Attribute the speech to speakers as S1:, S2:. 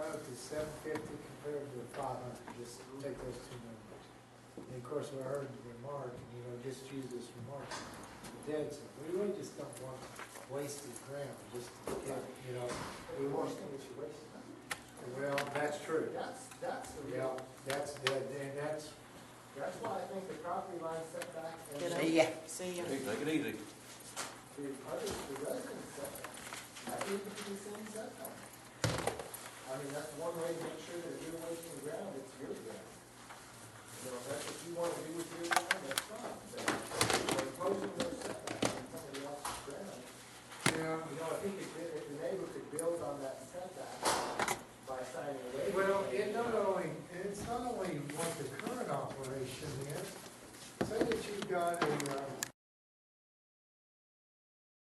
S1: compared to the five hundred, just take those two numbers. And of course, we heard the remark, and you know, just use this remark, the dead zone, we really just don't want wasted ground, just, to get, you know, we want, well, that's true.
S2: That's, that's the
S1: Yeah,
S2: real,
S1: that's, that, and that's,
S2: that's why I think the property line setback and
S3: Get
S2: the,
S3: up.
S4: See ya.
S3: See ya.
S5: Hey, take it easy.
S2: other, the residence setback, that needs to be the same setback. I mean, that's one way to make sure that if you're wasting ground, it's your ground. You know, if that's what you wanna do with your ground, that's fine, but we're imposing those setbacks on somebody else's ground.
S1: yeah, uh,